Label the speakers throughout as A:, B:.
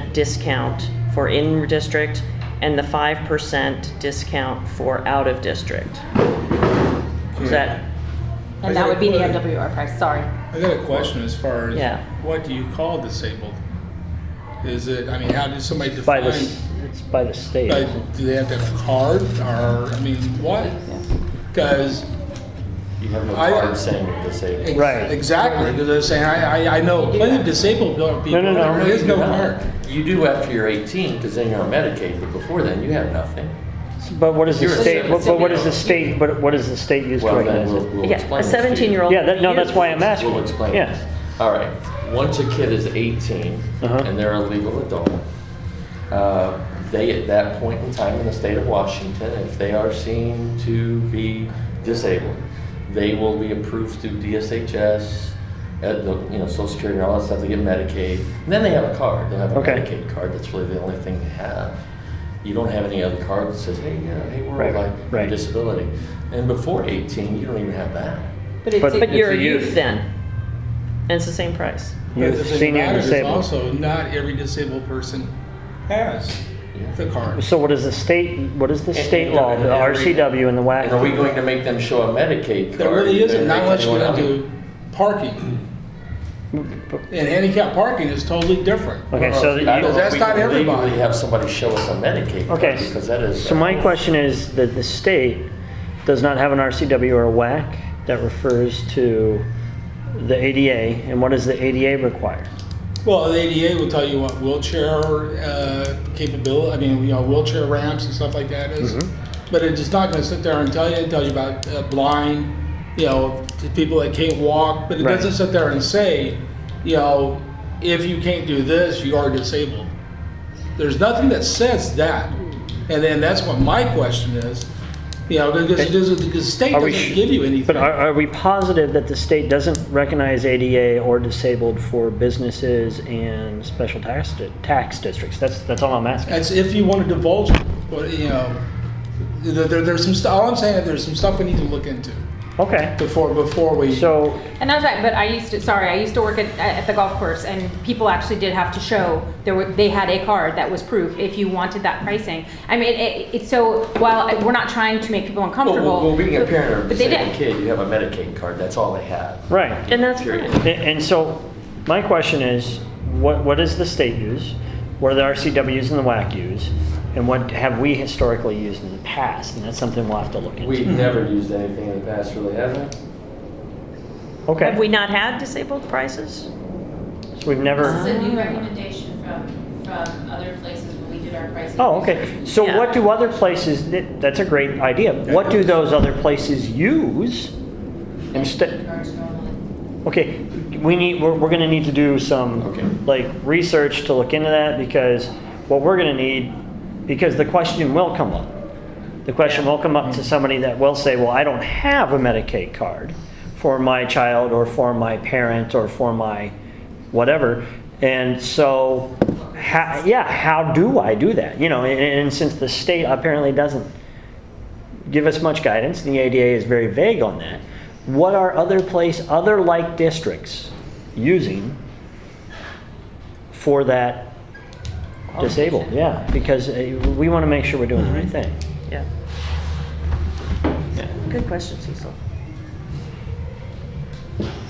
A: percent discount for in-district and the five percent discount for out-of-district. Is that,
B: And that would be the MWR price, sorry.
C: I got a question as far as
A: Yeah.
C: what do you call disabled? Is it? I mean, how does somebody
D: By
C: define?
D: the, s- it's by the state.
C: like, do they have to have a card, or I mean, what? Because
E: You have no
C: I-
E: card saying you're disabled.
D: Right.
C: exactly. Because they're saying I, I, I know plenty of disabled people.
D: no, no,
C: there is no
E: You do not.
C: card.
E: You do after you're 18, because then you're on Medicaid, but before then, you have nothing.
D: But what is the
E: You're a
D: state, what- but what is the
E: citizen.
D: state, but what does the state use to
E: Well, then
D: recognize
E: we'll,
D: it?
E: we'll
A: yeah,
E: explain
A: a
E: this to you.
A: seventeen-year-old.
D: Yeah, that, no, that's why I'm asking.
E: We'll explain.
D: Yeah.
E: All right, once a kid is 18
D: Uh-huh.
E: and they're a legal adult, uh, they, at that point in time in the state of Washington, if they are seen to be disabled, they will be approved through DSHS, at the, you know, Social Security and all that stuff, they get Medicaid. And then they have a card, they'll have a
D: Okay.
E: Medicaid card, that's really the only thing they have. You don't have any other card that says, hey, yeah, hey, we're
D: Right,
E: like
D: right.
E: disability. And before 18, you don't even have that.
D: But-
A: But
B: it's
A: you're a
D: It's a youth.
A: youth then, and it's the same price.
C: But
D: Youth,
C: the thing
D: senior,
C: about
D: and
C: it is
D: disabled.
C: Also, not every disabled person has the card.
D: So what is the state, what is the
E: And-
D: state
E: and-
D: law,
E: and
D: the
E: every-
D: RCW and the
E: And are we
D: WAC?
E: going to make them show a Medicaid card?
C: There really isn't. Not unless you
E: They're
C: get
E: making one up.
C: into parking. And handicap parking is totally different.
D: Mm-hmm. Okay, so that
E: I
D: you-
E: don't know if
C: That's
E: we
C: not
E: can legally
C: everybody.
E: Have somebody show us a Medicaid card.
D: Okay.
E: Because that is.
D: So my question is that the state does not have an RCW or a WAC that refers to the ADA, and what does the ADA require?
C: Well, the ADA will tell you what wheelchair uh, capability, I mean, you know, wheelchair ramps and stuff like that is.
D: Mm-hmm.
C: But it's just not going to sit there and tell you, it tells you about uh, blind, you know, to people that can't walk, but it
D: Right.
C: doesn't sit there and say, you know, if you can't do this, you are disabled. There's nothing that says that. And then that's what my question is, you know, because it doesn't- because the state
D: Are we
C: doesn't
D: sh-
C: give you anything.
D: But are, are we positive that the state doesn't recognize ADA or disabled for businesses and special tax, di- tax districts? That's, that's all I'm asking.
C: That's if you want to divulge, but you know, there, there- there's some stuff. All I'm saying is there's some stuff we need to look into
D: Okay,
C: before before we.
D: so,
B: And that's right, but I used to, sorry, I used to work at, at the golf course and people actually did have to show, there were, they had a card that was proof if you wanted that pricing. I mean, it, it's so, while I- we're not trying to make people
E: Well,
B: uncomfortable.
E: Well, well, being a
B: but-
E: parent of a
B: but they did.
E: disabled kid, you have a Medicaid card, that's all they have.
D: right.
A: And that's
E: Period.
A: fine.
D: A- And so, my question is, what, what does the state use? What do the RCWs and the WAC use? And what have we historically used in the past? And that's something we'll have to look into.
E: We've never used anything in the past, really, have we?
D: Okay,
A: Have we not had disabled prices?
D: so we've
F: This is
D: never,
F: a new recommendation from, from other places when we did our pricing.
D: oh, okay. So
A: Yeah.
D: what do other places, that- that's a great idea. What do those other places use?
F: In
D: Instead,
F: regards to normal-
D: Okay, we need, we're, we're gonna need to do
E: Okay.
D: some, like, research to look into that, because what we're gonna need, because the question will come up. The question will come up to somebody that will say, well, I don't have a Medicaid card for my child, or for my parent, or for my whatever. And so, how, yeah, how do I do that? You know, and, and since the state apparently doesn't give us much guidance, and the ADA is very vague on that. What are other place, other like districts using for that disabled? Yeah, because uh, we want to make sure we're doing the right thing.
A: Yeah. Good question, Cecil.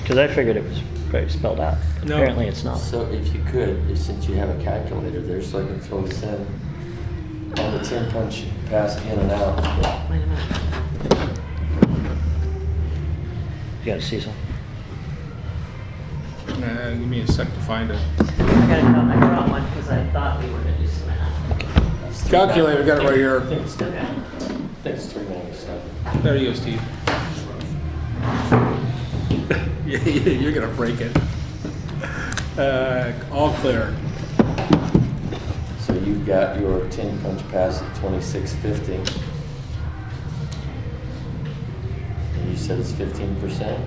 D: Because I figured it was very spelled out.
C: No.
D: Apparently, it's not.
E: So if you could, if- since you have a calculator there, so I can throw this in, on the 10 punch pass in and out.
A: Wait a minute.
D: You got it, Cecil.
C: Uh, give me a sec to find it.
A: I gotta tell, I brought one because I thought we were gonna do some math.
C: Calculator, got it right here.
E: Thanks, thanks, 397.
C: There you go, Steve. Yeah, yeah, You're gonna break it. Uh, all clear.
E: So you've got your ten punch pass at twenty-six fifty. And you said it's fifteen percent?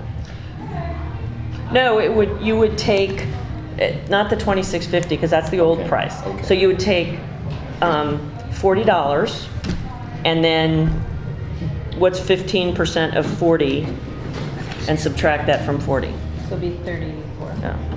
A: No, it would, you would take, eh, not the twenty-six fifty, because that's the old
E: Okay,
A: price.
E: okay.
A: So you would take, um, forty dollars, and then what's fifteen percent of forty? And subtract that from forty.
B: So it'd be thirty-four.
A: Yeah.